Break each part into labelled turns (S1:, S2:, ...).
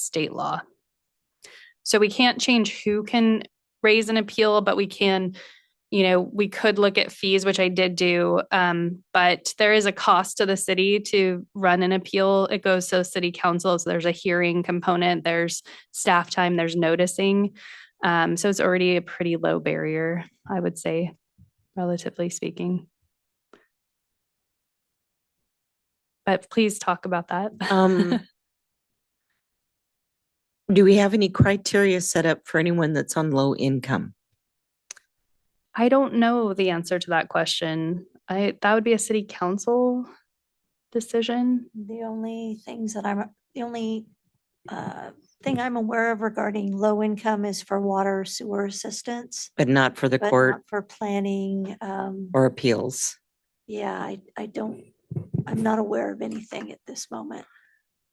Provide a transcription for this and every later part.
S1: state law. So we can't change who can raise an appeal, but we can, you know, we could look at fees, which I did do. Um, but there is a cost to the city to run an appeal. It goes to the city council. So there's a hearing component, there's staff time, there's noticing. Um, so it's already a pretty low barrier, I would say, relatively speaking. But please talk about that.
S2: Um, do we have any criteria set up for anyone that's on low income?
S1: I don't know the answer to that question. I, that would be a city council decision.
S3: The only things that I'm, the only uh, thing I'm aware of regarding low income is for water sewer assistance.
S2: But not for the
S3: but
S2: court
S3: not For planning, um,
S2: or appeals?
S3: yeah, I, I don't, I'm not aware of anything at this moment.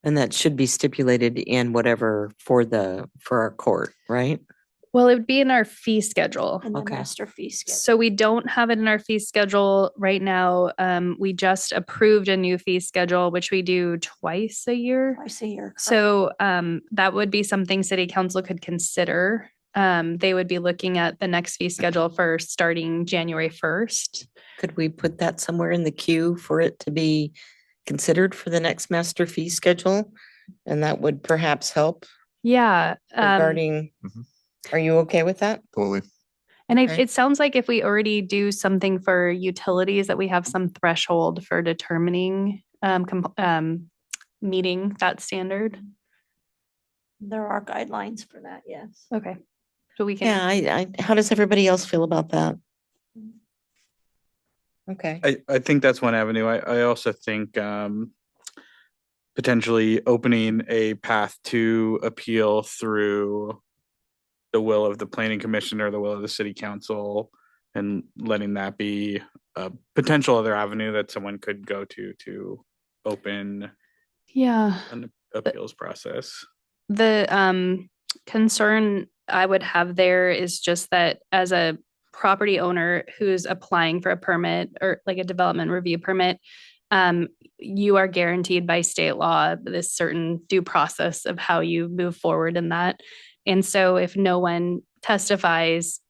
S2: And that should be stipulated in whatever for the, for our court, right?
S1: Well, it would be in our fee E schedule.
S3: And the
S2: Okay.
S3: master fee E schedule.
S1: So we don't have it in our fee E schedule right now. Um, we just approved a new fee schedule, which we do twice a year.
S3: I see your.
S1: So um, that would be something city council could consider. Um, they would be looking at the next fee schedule for starting January first.
S2: Could we put that somewhere in the queue for it to be considered for the next master fee schedule? And that would perhaps help
S1: Yeah. um,
S2: regarding,
S4: Mhm.
S2: are you okay with that?
S4: Totally.
S1: And it,
S2: Okay.
S1: it sounds like if we already do something for utilities, that we have some threshold for determining, um, comp- um, meeting that standard.
S3: There are guidelines for that, yes.
S1: Okay. So we
S2: Yeah,
S1: can,
S2: I, I, how does everybody else feel about that? Okay.
S4: I, I think that's one avenue. I, I also think um, potentially opening a path to appeal through the will of the planning commission or the will of the city council and letting that be a potential other avenue that someone could go to to open
S1: yeah.
S4: an appeals process.
S1: The um concern I would have there is just that as a property owner who's applying for a permit or like a development review permit, um, you are guaranteed by state law this certain due process of how you move forward in that. And so if no one testifies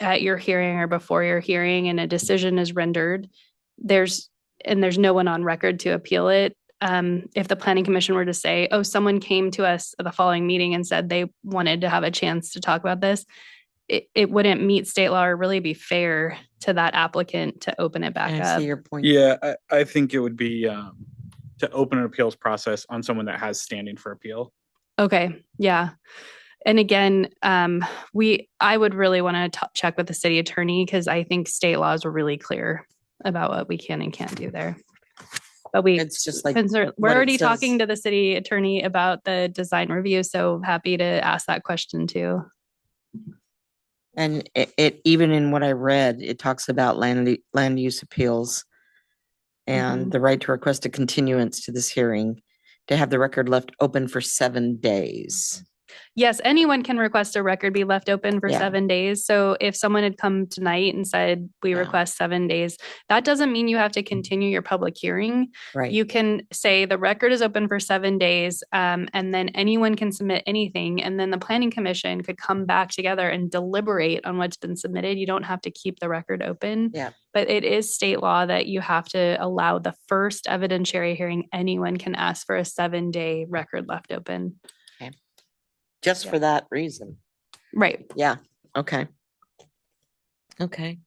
S1: at your hearing or before your hearing and a decision is rendered, there's and there's no one on record to appeal it, um, if the planning commission were to say, oh, someone came to us at the following meeting and said they wanted to have a chance to talk about this, it, it wouldn't meet state law or really be fair to that applicant to open it back
S2: I
S1: up.
S2: see your point.
S4: Yeah, I, I think it would be um, to open an appeals process on someone that has standing for appeal.
S1: Okay, yeah. And again, um, we, I would really want to check with the city attorney because I think state laws are really clear about what we can and can't do there. But we,
S2: It's just like,
S1: Spencer, we're
S2: what it
S1: already
S2: says.
S1: talking to the city attorney about the design review, so happy to ask that question too.
S2: and it, it, even in what I read, it talks about land, u- land use appeals and the right to request a continuance to this hearing, to have the record left open for seven days.
S1: Yes, anyone can request a record be left open for
S2: Yeah.
S1: seven days. So if someone had come tonight and said, we
S2: Yeah.
S1: request seven days, that doesn't mean you have to continue your public hearing.
S2: Right.
S1: You can say the record is open for seven days, um, and then anyone can submit anything. And then the planning commission could come back together and deliberate on what's been submitted. You don't have to keep the record open.
S2: Yeah.
S1: But it is state law that you have to allow the first evidentiary hearing. Anyone can ask for a seven day record left open.
S2: Just for that reason.
S1: Right.
S2: Yeah, okay. Okay.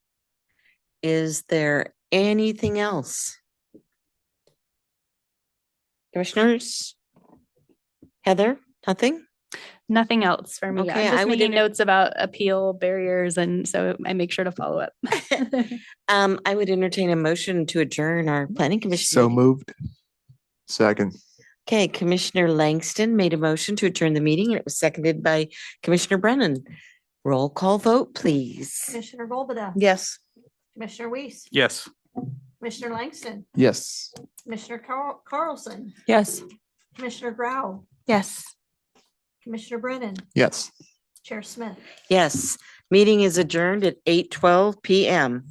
S2: Is there anything else? Commissioners? Heather, nothing?
S1: Nothing else for me.
S2: Okay,
S1: I'm
S2: I
S1: just
S2: would
S1: making
S2: enter-
S1: notes about appeal barriers, and so I make sure to follow up.
S2: Um, I would entertain a motion to adjourn our planning commission.
S5: So
S2: meeting.
S5: moved. Second.
S2: Okay, Commissioner Langston made a motion to adjourn the meeting and it was seconded by Commissioner Brennan. Roll call vote, please.
S3: Commissioner Volbada.
S2: Yes.
S3: Commissioner Weiss.
S4: Yes.
S3: Commissioner Langston.
S5: Yes.
S3: Commissioner Carl- Carlson.
S6: Yes.
S3: Commissioner Grau.
S6: Yes.
S3: Commissioner Brennan.
S5: Yes.
S3: Chair Smith.
S2: Yes, meeting is adjourned at eight twelve PM.